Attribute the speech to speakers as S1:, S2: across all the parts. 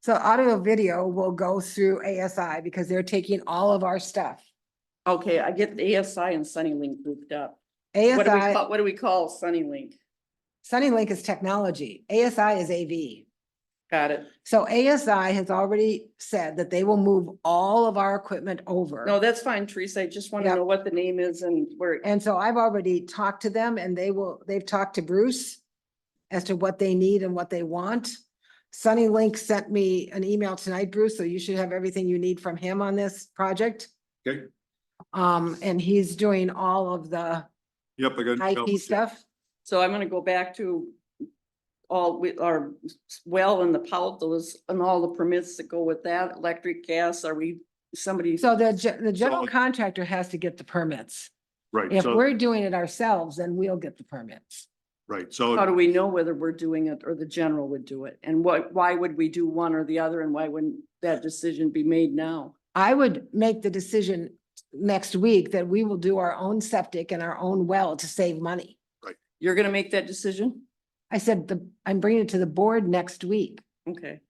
S1: So audio video will go through ASI because they're taking all of our stuff.
S2: Okay, I get the ASI and Sunny Link grouped up. What do we
S1: ASI,
S2: call, what do we call Sunny Link?
S1: Sunny Link is technology. ASI is AV.
S2: Got it.
S1: So ASI has already said that they will move all of our equipment over.
S2: No, that's fine, Teresa. I just want to
S1: Yep.
S2: know what the name is and where.
S1: And so I've already talked to them and they will, they've talked to Bruce as to what they need and what they want. Sunny Link sent me an email tonight, Bruce, so you should have everything you need from him on this project.
S3: Okay.
S1: Um, and he's doing all of the
S3: Yep, I got.
S1: IT stuff.
S2: So I'm gonna go back to all with our s- well and the peltos and all the permits that go with that, electric, gas, are we, somebody?
S1: So the, ge- the general
S3: So-
S1: contractor has to get the permits.
S3: Right,
S1: If
S3: so,
S1: we're doing it ourselves, then we'll get the permits.
S3: right,
S2: How do
S3: so,
S2: we know whether we're doing it or the general would do it? And what, why would we do one or the other and why wouldn't that decision be made now?
S1: I would make the decision next week that we will do our own septic and our own well to save money.
S2: You're gonna make that decision?
S1: I said, the, I'm bringing it to the board next week.
S2: Okay,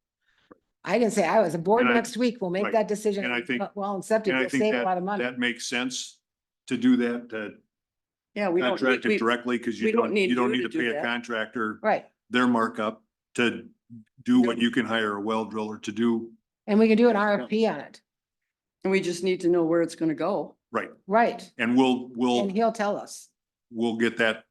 S1: I didn't say I was, the board
S3: And I-
S1: next week will make
S3: right.
S1: that decision.
S3: And I
S1: on
S3: think-
S1: what Well, and septic,
S3: and I
S1: will
S3: think
S1: save a
S3: that-
S1: lot of money.
S3: that makes sense to do that, to
S2: yeah, we don't,
S3: contract
S2: we-
S3: it
S2: we-
S3: directly, because
S2: we
S3: you
S2: don't
S3: don't,
S2: need
S3: you don't
S2: you
S3: need
S2: to
S3: to
S2: do
S3: pay
S2: that.
S3: a contractor
S1: Right.
S3: their markup to do what you can hire a well driller to do.
S1: And we can do an
S3: Yeah.
S1: RFP on it.
S2: and we just need to know where it's gonna go.
S3: Right,
S1: Right.
S3: and we'll,
S1: And
S3: we'll,
S1: he'll tell us.
S3: we'll get that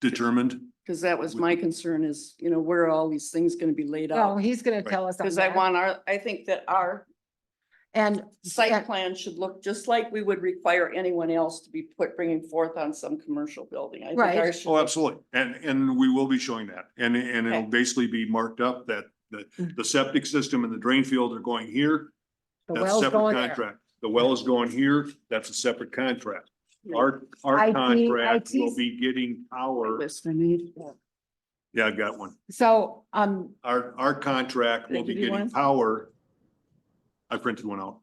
S3: determined.
S2: Cause that was
S3: Would-
S2: my concern is, you know, where are all these things gonna be laid
S1: No,
S2: out?
S1: he's gonna
S3: Right.
S1: tell us. on
S2: Cause I
S1: that.
S2: want our, I think that our
S1: And,
S2: site
S1: and-
S2: plan should look just like we would require anyone else to be put, bringing forth on some commercial building. I think
S1: Right.
S2: ours should
S3: Oh,
S2: look-
S3: absolutely, and, and we will be showing that, and, and it'll
S2: Okay. Mm.
S3: basically be marked up that, that the septic system and the drain field are going here.
S1: the
S3: That's
S1: well's
S3: separate
S1: going there.
S3: contract. The well is going here, that's a separate contract. Our,
S1: IT
S3: our contract will
S1: IT.
S3: be getting our,
S2: List I need.
S3: yeah, I got one.
S1: So, um,
S3: Our, our contract
S2: Did I
S3: will be
S2: give you
S3: getting
S2: one?
S3: power. I printed one out.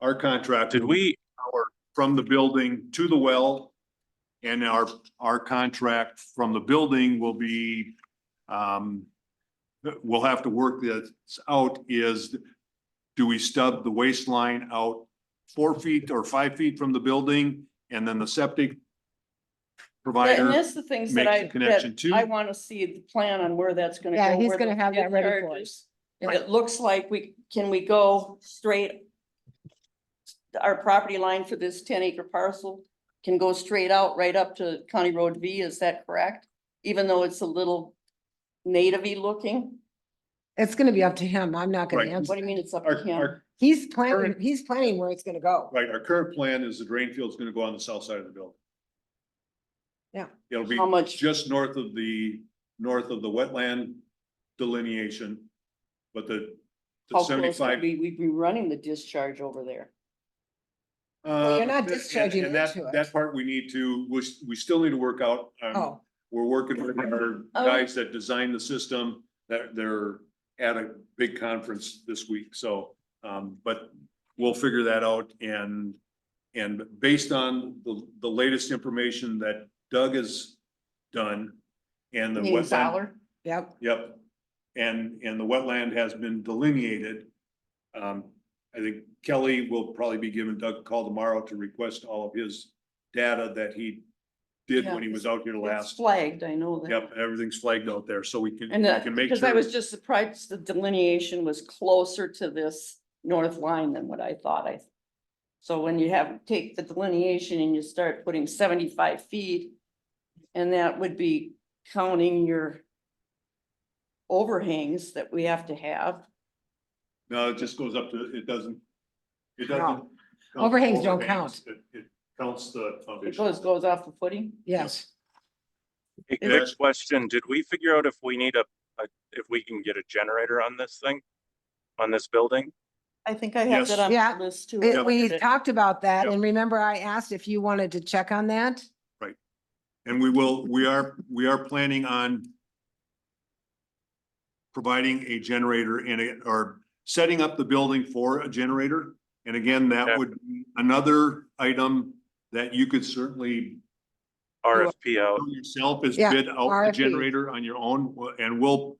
S3: Our contract.
S4: Did we,
S3: Power from the building to the well. And our, our contract from the building will be, um, we'll have to work this out is, do we stub the waistline out four feet or five feet from the building? And then the septic
S2: And
S3: provider,
S2: that's the things that
S3: makes
S2: I,
S3: the connection
S2: that
S3: too.
S2: I want to see the plan on where that's gonna go.
S1: yeah, he's
S2: where the
S1: gonna have that ready for us.
S2: charges- And it looks like we, can we go straight? Our property line for this ten acre parcel can go straight out right up to County Road V, is that correct? Even though it's a little native-y looking?
S1: It's gonna be up to him. I'm not gonna
S3: Right.
S2: What
S1: answer.
S2: do you mean it's up to
S3: our,
S2: him?
S3: our,
S1: He's planning,
S3: Current-
S1: he's planning where it's gonna go.
S3: right, our current plan is the drain field's gonna go on the south side of the building.
S1: Yeah.
S3: It'll be
S2: How much,
S3: just north of the, north of the wetland delineation, but the the
S2: how close would
S3: seventy-five.
S2: we, we'd be running the discharge over there?
S3: uh,
S1: you're not
S3: and-
S1: discharging
S3: and that-
S1: into it.
S3: That part we need to, we, s- we still need to work out. um,
S1: Oh,
S3: We're working with our
S2: Oh.
S3: guys that designed the system, that they're at a big conference this week, so, um, but we'll figure that out and, and based on the, the latest information that Doug has done and the
S2: You mean
S3: wetland
S2: Fowler?
S1: yep.
S3: Yep, and, and the wetland has been delineated. Um, I think Kelly will probably be giving Doug a call tomorrow to request all of his data that he did when he was out here
S2: It's
S3: last.
S2: flagged, I know that.
S3: Yep, everything's flagged out there, so we can,
S2: And
S3: we
S2: that,
S3: can make
S2: because I was
S3: sure.
S2: just surprised the delineation was closer to this north line than what I thought I. So when you have, take the delineation and you start putting seventy-five feet. And that would be counting your. Overhangs that we have to have.
S3: No, it just goes up to, it doesn't, it doesn't. count
S1: Overhangs don't count.
S3: It, it counts the
S2: It
S3: foundation.
S2: goes, goes off the footing.
S1: Yes.
S4: a
S2: Yeah.
S4: quick question, did we figure out if we need a, a- if we can get a generator on this thing? On this building?
S2: I think I have
S3: Yes.
S2: that on
S1: Yeah.
S2: the list too.
S1: It-
S2: I
S1: we
S2: looked at it.
S1: talked about that,
S3: Yep.
S1: and remember I asked if you wanted to check on that?
S3: And we will, we are, we are planning on providing a generator and it, or setting up the building for a generator. And again, that
S4: Okay.
S3: would, another item that you could certainly
S4: RFP out,
S3: do yourself is
S1: Yeah,
S3: bid out the
S1: RFP.
S3: generator on your own, and we'll,